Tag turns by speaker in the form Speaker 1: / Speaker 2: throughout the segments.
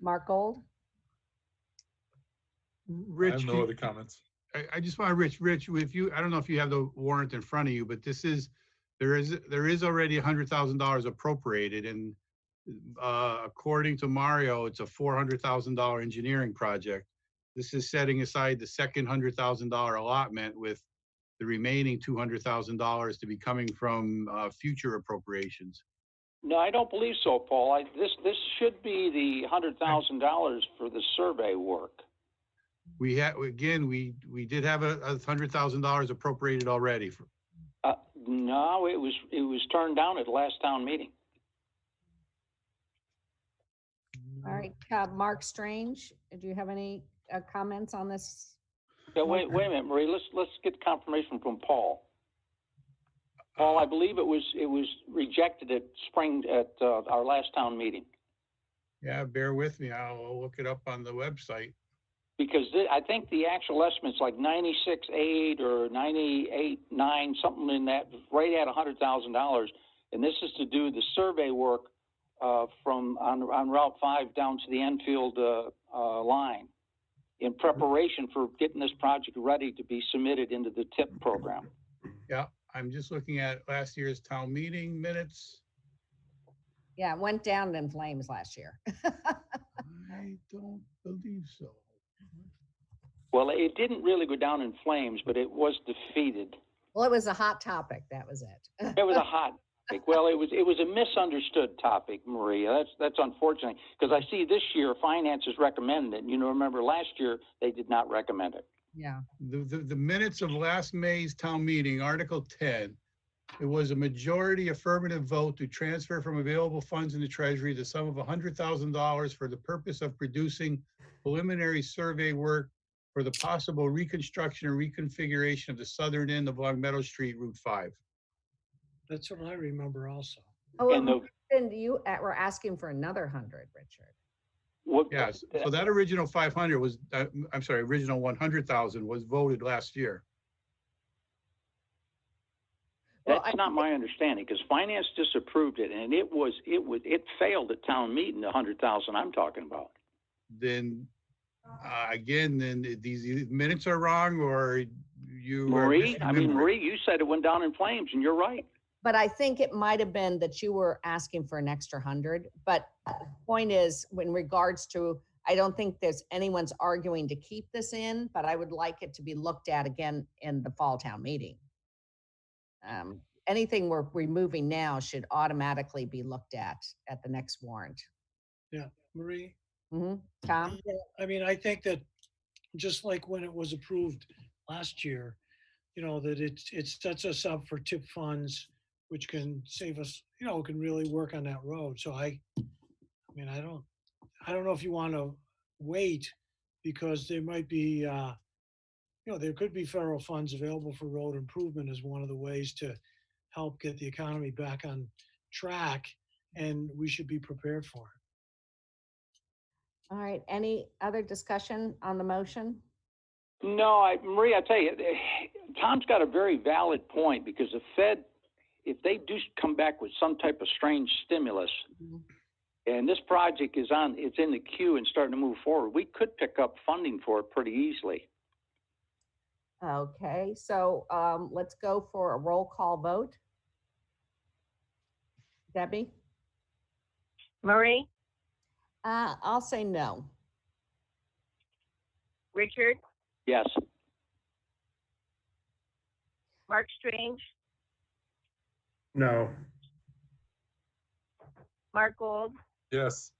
Speaker 1: Mark Gold?
Speaker 2: I
Speaker 3: Rich,
Speaker 2: have
Speaker 3: do
Speaker 2: no
Speaker 3: you-
Speaker 2: other comments.
Speaker 3: I, I just want, Rich, Rich, if you, I don't know if you have the warrant in front of you, but this is, there is, there is already a hundred thousand dollars appropriated and uh, according to Mario, it's a four hundred thousand dollar engineering project. This is setting aside the second hundred thousand dollar allotment with the remaining two hundred thousand dollars to be coming from, uh, future appropriations.
Speaker 4: No, I don't believe so, Paul. I, this, this should be the hundred thousand dollars for the survey work.
Speaker 3: We had, again, we, we did have a, a hundred thousand dollars appropriated already for,
Speaker 4: Uh, no, it was, it was turned down at last town meeting.
Speaker 3: Mm-hmm.
Speaker 1: All right, uh, Mark Strange, do you have any uh, comments on this?
Speaker 4: Yeah, wait, wait a minute, Marie, let's, let's get confirmation from Paul. Paul, I believe it was, it was rejected at spring, at, uh, our last town meeting.
Speaker 3: Yeah, bear with me. I'll look it up on the website.
Speaker 4: Because thi- I think the actual estimate's like ninety-six eight or ninety-eight nine, something in that, right at a hundred thousand dollars. And this is to do the survey work, uh, from, on, on Route five down to the Enfield, uh, uh, line in preparation for getting this project ready to be submitted into the TIP program.
Speaker 3: Yeah, I'm just looking at last year's town meeting minutes.
Speaker 1: Yeah, it went down in flames last year.
Speaker 3: I don't believe so.
Speaker 4: Well, it didn't really go down in flames, but it was defeated.
Speaker 1: Well, it was a hot topic, that was it.
Speaker 4: It was a hot topic. Well, it was it was a misunderstood topic, Maria. That's that's unfortunate because I see this year finance is recommending it. You know, remember last year they did not recommend it.
Speaker 1: Yeah,
Speaker 3: The, the, the minutes of last May's town meeting, Article ten. It was a majority affirmative vote to transfer from available funds in the treasury the sum of hundred thousand dollars for the purpose of producing preliminary survey work for the possible reconstruction and reconfiguration of the southern end of Long Meadow Street, Route five.
Speaker 5: That's what I remember also.
Speaker 1: Oh, it
Speaker 4: and the
Speaker 1: might've been you uh, were asking for another hundred, Richard.
Speaker 4: what,
Speaker 3: Yes, so that original five hundred was, uh, m- I'm sorry, original one hundred thousand was voted last year.
Speaker 1: Well,
Speaker 4: that's
Speaker 1: I-
Speaker 4: not my understanding because finance disapproved it and it was it was it failed at town meeting. The hundred thousand I'm talking about.
Speaker 3: Then, uh, again, then i- these e- minutes are wrong or you. are
Speaker 4: Marie, I mean
Speaker 3: misremembering.
Speaker 4: Marie, you said it went down in flames, and you're right.
Speaker 1: But I think it might have been that you were asking for an extra hundred, but the point is, in regards to, I don't think there's anyone's arguing to keep this in, but I would like it to be looked at again in the fall town meeting. Um, Anything we're removing now should automatically be looked at at the next warrant.
Speaker 5: Marie,
Speaker 1: Mhm. Tom?
Speaker 5: I mean, I think that just like when it was approved last year, you know, that it, it sets us up for tip funds, which can save us, you know, can really work on that road. So I, I mean, I don't, I don't know if you want to wait because there might be, uh, you know, there could be federal funds available for road improvement as one of the ways to help get the economy back on track and we should be prepared for it.
Speaker 1: All right, any other discussion on the motion?
Speaker 4: No, I, Marie, I tell you, eh, Tom's got a very valid point because the Fed, if they do come back with some type of strange stimulus,
Speaker 1: Mhm.
Speaker 4: and this project is on, it's in the queue and starting to move forward, we could pick up funding for it pretty easily.
Speaker 1: Okay, so um, let's go for a roll call vote. Debbie?
Speaker 6: Marie,
Speaker 1: Uh, I'll say no.
Speaker 6: Richard,
Speaker 4: Yes.
Speaker 6: Mark Strange,
Speaker 2: No.
Speaker 6: Mark Gold,
Speaker 2: Yes,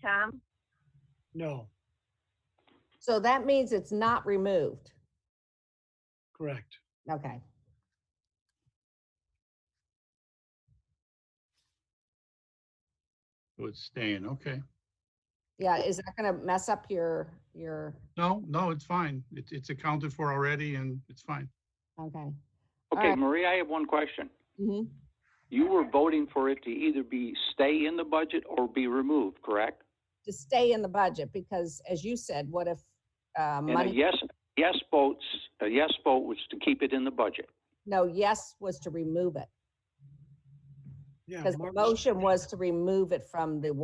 Speaker 6: Tom,
Speaker 5: No,
Speaker 1: So that means it's not removed.
Speaker 5: correct.
Speaker 1: Okay.
Speaker 3: So It's staying, okay.
Speaker 1: Yeah, is that gonna mess up your, your,
Speaker 3: No, no, it's fine. It's, it's accounted for already and it's fine.
Speaker 1: okay.
Speaker 4: Okay,
Speaker 1: right.
Speaker 4: Marie, I have one question.
Speaker 1: hmm
Speaker 4: You were voting for it to either be stay in the budget or be removed, correct?
Speaker 1: To stay in the budget, because as you said, what if uh,
Speaker 4: And a
Speaker 1: money,
Speaker 4: yes, yes votes, a yes vote was to keep it in the budget.
Speaker 1: no, yes was to remove it.
Speaker 5: Yeah,
Speaker 1: Because the
Speaker 5: Mark's-
Speaker 1: motion was to remove it from the